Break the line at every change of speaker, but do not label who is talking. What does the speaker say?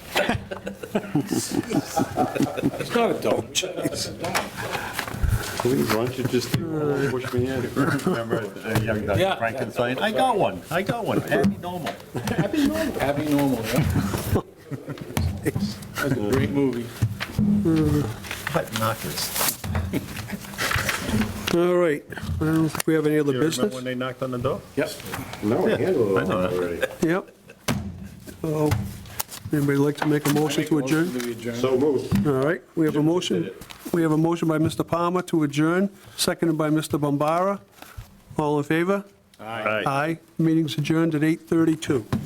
It's not a don't.
Please, why don't you just uh, push me in?
Remember uh, young
Yeah.
Dr. Frankenstein? I got one, I got one, Abby Normal.
Happy normal. Happy normal, yeah. That's a great movie.
Butt knockers.
All right, I don't think we have any other
You remember when
business.
they knocked on the door?
Yep.
No, I handled
I
it all
know that.
already.
Yep. So, anybody like to make a motion to adjourn?
Motion to adjourn.
So moved.
All right, we have a motion, we have a motion by Mr. Palmer to adjourn, seconded by Mr. Bombara. All in favor?
Aye.
Aye, meeting's adjourned at 8:32.